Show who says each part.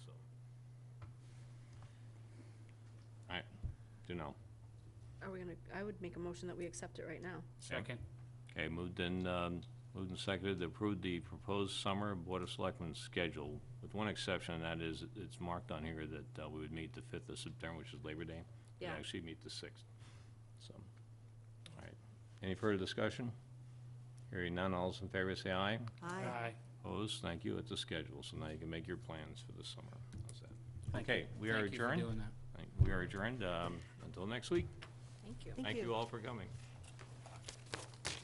Speaker 1: to know.
Speaker 2: Are we gonna, I would make a motion that we accept it right now.
Speaker 3: Second.
Speaker 1: Okay, moved and, um, moved and seconded to approve the proposed summer Board of Selectmen's schedule, with one exception, and that is, it's marked on here that uh, we would meet the 5th of September, which is Labor Day. We'd
Speaker 2: Yeah.
Speaker 1: actually meet the 6th, so, all right. Any further discussion? Hearing none, all those in favor say aye.
Speaker 3: Aye.
Speaker 1: Opposed, thank you, it's a schedule, so now you can make your plans for the summer. How's that?
Speaker 3: Thank you.
Speaker 1: Okay, we are
Speaker 3: Thank you for
Speaker 1: adjourned.
Speaker 3: doing that.
Speaker 1: Thank- We are adjourned, um, until next week.
Speaker 2: Thank you.
Speaker 1: Thank you all for coming.